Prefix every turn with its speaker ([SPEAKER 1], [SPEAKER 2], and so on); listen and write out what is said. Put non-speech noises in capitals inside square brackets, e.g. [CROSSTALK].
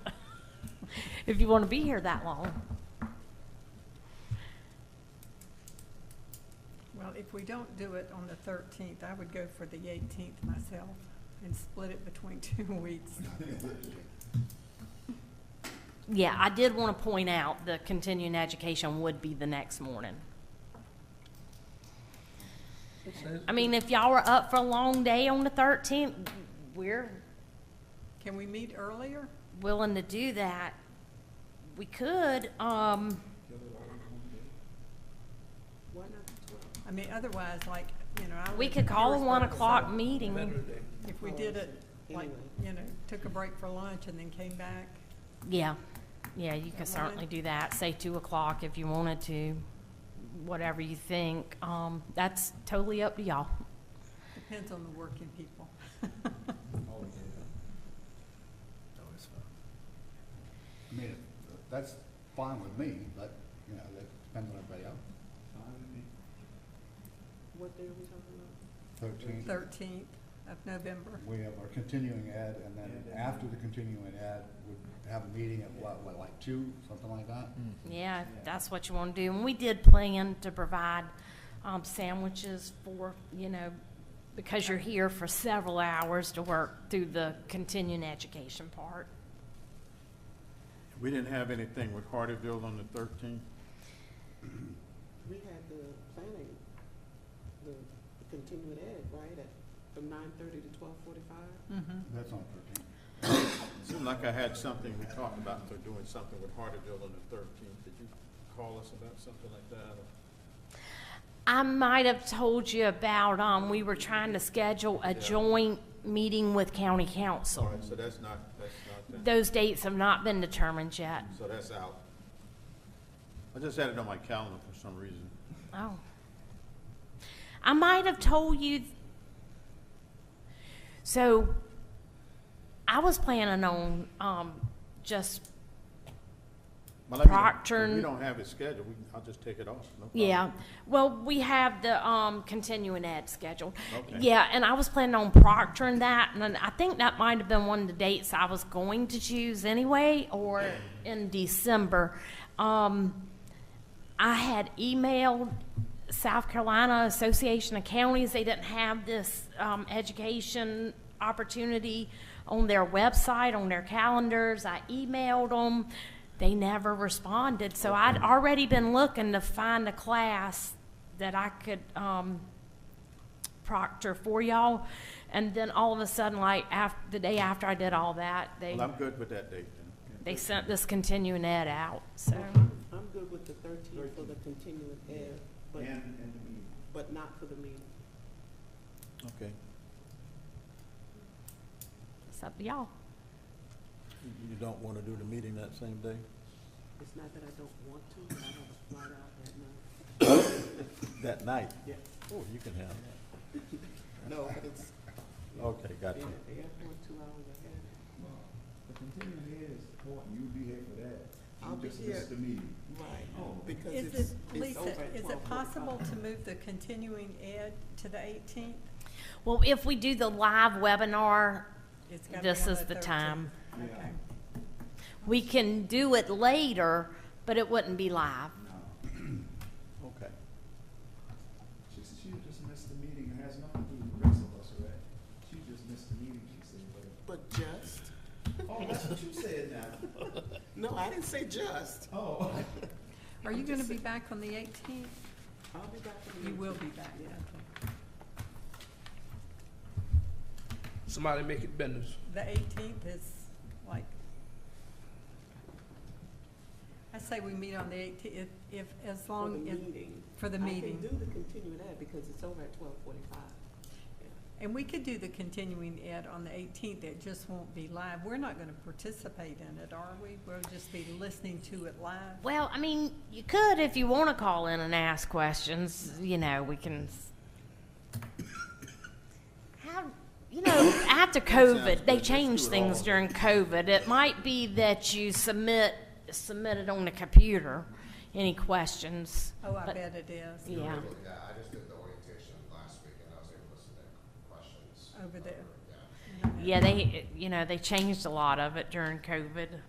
[SPEAKER 1] [LAUGHS] if you want to be here that long.
[SPEAKER 2] Well, if we don't do it on the thirteenth, I would go for the eighteenth myself and split it between [LAUGHS] two weeks.
[SPEAKER 1] Yeah, I did want to point out the continuing education would be the next morning. I mean, if y'all were up for a long day on the thirteenth, we're
[SPEAKER 2] Can we meet earlier?
[SPEAKER 1] willing to do that. We could, um,
[SPEAKER 2] I mean, otherwise, like, you know, I
[SPEAKER 1] we
[SPEAKER 2] live
[SPEAKER 1] could
[SPEAKER 2] in
[SPEAKER 1] call a one
[SPEAKER 2] Harrisburg, so
[SPEAKER 1] o'clock meeting.
[SPEAKER 2] If
[SPEAKER 3] Oh,
[SPEAKER 2] we did it, like, you know, took a break for lunch and then came back,
[SPEAKER 1] Yeah, yeah, you could
[SPEAKER 2] That morning?
[SPEAKER 1] certainly do that, say two o'clock if you wanted to, whatever you think. Um, that's totally up to y'all.
[SPEAKER 2] depends on the working people.
[SPEAKER 4] Always fun. I mean, that's fine with me, but, you know, that depends on everybody else.
[SPEAKER 3] What day are we talking about?
[SPEAKER 4] Thirteen,
[SPEAKER 2] Thirteenth of November.
[SPEAKER 4] we have our continuing ed, and then after the continuing ed, we have a meeting at what, what, like two, something like that?
[SPEAKER 1] Yeah, if that's what you want to do. And we did plan to provide um, sandwiches for, you know, because you're here for several hours to work through the continuing education part.
[SPEAKER 5] We didn't have anything with Hardyville on the thirteenth.
[SPEAKER 3] We had the planning, the continuing ed, right, at, from nine thirty to twelve forty-five?
[SPEAKER 2] Mm-hmm.
[SPEAKER 4] That's on thirteen.
[SPEAKER 5] Seemed like I had something we talked about, they're doing something with Hardyville on the thirteenth. Did you call us about something like that?
[SPEAKER 1] I might have told you about, um, we were trying to schedule a
[SPEAKER 5] Yeah.
[SPEAKER 1] joint meeting with county
[SPEAKER 5] All
[SPEAKER 1] council.
[SPEAKER 5] right, so that's not, that's not, that.
[SPEAKER 1] Those dates have not been determined yet.
[SPEAKER 5] so that's out. I just had it on my calendar for some reason.
[SPEAKER 1] Oh. I might have told you. So I was planning on um, just,
[SPEAKER 5] But let me know.
[SPEAKER 1] Procter
[SPEAKER 5] If
[SPEAKER 1] and-
[SPEAKER 5] we don't have it scheduled, we, I'll just take it off, no problem.
[SPEAKER 1] yeah. um, Well, we have the um, continuing ed scheduled.
[SPEAKER 5] Okay.
[SPEAKER 1] Yeah, and I was planning on proctoring that. And then I think that might have been one of the dates I was going to choose anyway, or in December. Um, I had emailed South Carolina Association of Counties. They didn't have this um, education opportunity on their website, on their calendars. I emailed them. They never responded. So I'd already been looking to find a class that I could um, proctor for y'all. And then all of a sudden, like after, the day after I did all that, they,
[SPEAKER 5] Well, I'm good with that date then.
[SPEAKER 1] they sent this continuing ed out. So.
[SPEAKER 3] I'm good with the thirteenth for the continuing ed, but, but not for the meeting.
[SPEAKER 5] Okay.
[SPEAKER 1] It's up to y'all.
[SPEAKER 6] You don't want to do the meeting that same day?
[SPEAKER 3] It's not that I don't want to, but I have a flight out that night.
[SPEAKER 6] That night?
[SPEAKER 3] Yeah.
[SPEAKER 6] Oh, you can have that.
[SPEAKER 3] No, but it's,
[SPEAKER 6] Okay, got
[SPEAKER 3] yeah,
[SPEAKER 6] you.
[SPEAKER 3] the airport two hours ahead.
[SPEAKER 7] The continuing ed is important, you'll be here for that. You
[SPEAKER 3] I'll be
[SPEAKER 7] just
[SPEAKER 3] here.
[SPEAKER 7] missed the meeting.
[SPEAKER 3] Right, because
[SPEAKER 2] Is
[SPEAKER 3] it's,
[SPEAKER 2] it,
[SPEAKER 3] it's
[SPEAKER 2] Lisa,
[SPEAKER 3] over at
[SPEAKER 2] is
[SPEAKER 3] twelve
[SPEAKER 2] it possible
[SPEAKER 3] forty-five.
[SPEAKER 2] to move the continuing ed to the eighteenth?
[SPEAKER 1] Well, if we do the live webinar, this is the time.
[SPEAKER 2] Okay.
[SPEAKER 1] We can do it later, but it wouldn't be live.
[SPEAKER 6] Okay.
[SPEAKER 7] She said she just missed the meeting, it has nothing to do with the rest of us, right? She just missed the meeting, she said, but.
[SPEAKER 3] But just,
[SPEAKER 7] Oh, that's what you said now.
[SPEAKER 3] no, I didn't say just.
[SPEAKER 7] Oh. [LAUGHS]
[SPEAKER 2] Are you gonna be back on the eighteenth?
[SPEAKER 3] I'll be back for the
[SPEAKER 2] You
[SPEAKER 3] meeting.
[SPEAKER 2] will be back, okay.
[SPEAKER 8] Somebody make it business.
[SPEAKER 2] The eighteenth is like, I say we meet on the eighteenth, if, if, as
[SPEAKER 3] For the
[SPEAKER 2] long, as
[SPEAKER 3] meeting.
[SPEAKER 2] for the
[SPEAKER 3] I
[SPEAKER 2] meeting.
[SPEAKER 3] can do the continuing ed because it's over at twelve forty-five.
[SPEAKER 2] And we could do the continuing ed on the eighteenth, it just won't be live. We're not gonna participate in it, are we? We'll just be listening to it live.
[SPEAKER 1] Well, I mean, you could if you want to call in and ask questions, you know, we can. s- How, you know, after COVID, they
[SPEAKER 5] good. Let's do
[SPEAKER 1] changed
[SPEAKER 5] it
[SPEAKER 1] things
[SPEAKER 5] all.
[SPEAKER 1] during COVID. It might be that you submit, submit it on the computer, any questions.
[SPEAKER 2] Oh, I
[SPEAKER 1] but-
[SPEAKER 2] bet it is,
[SPEAKER 1] Yeah,
[SPEAKER 9] Yeah, I just did the orientation last week and I was able to submit questions.
[SPEAKER 2] over there.
[SPEAKER 9] Yeah.
[SPEAKER 1] yeah, they, you know, they changed a lot of it during COVID.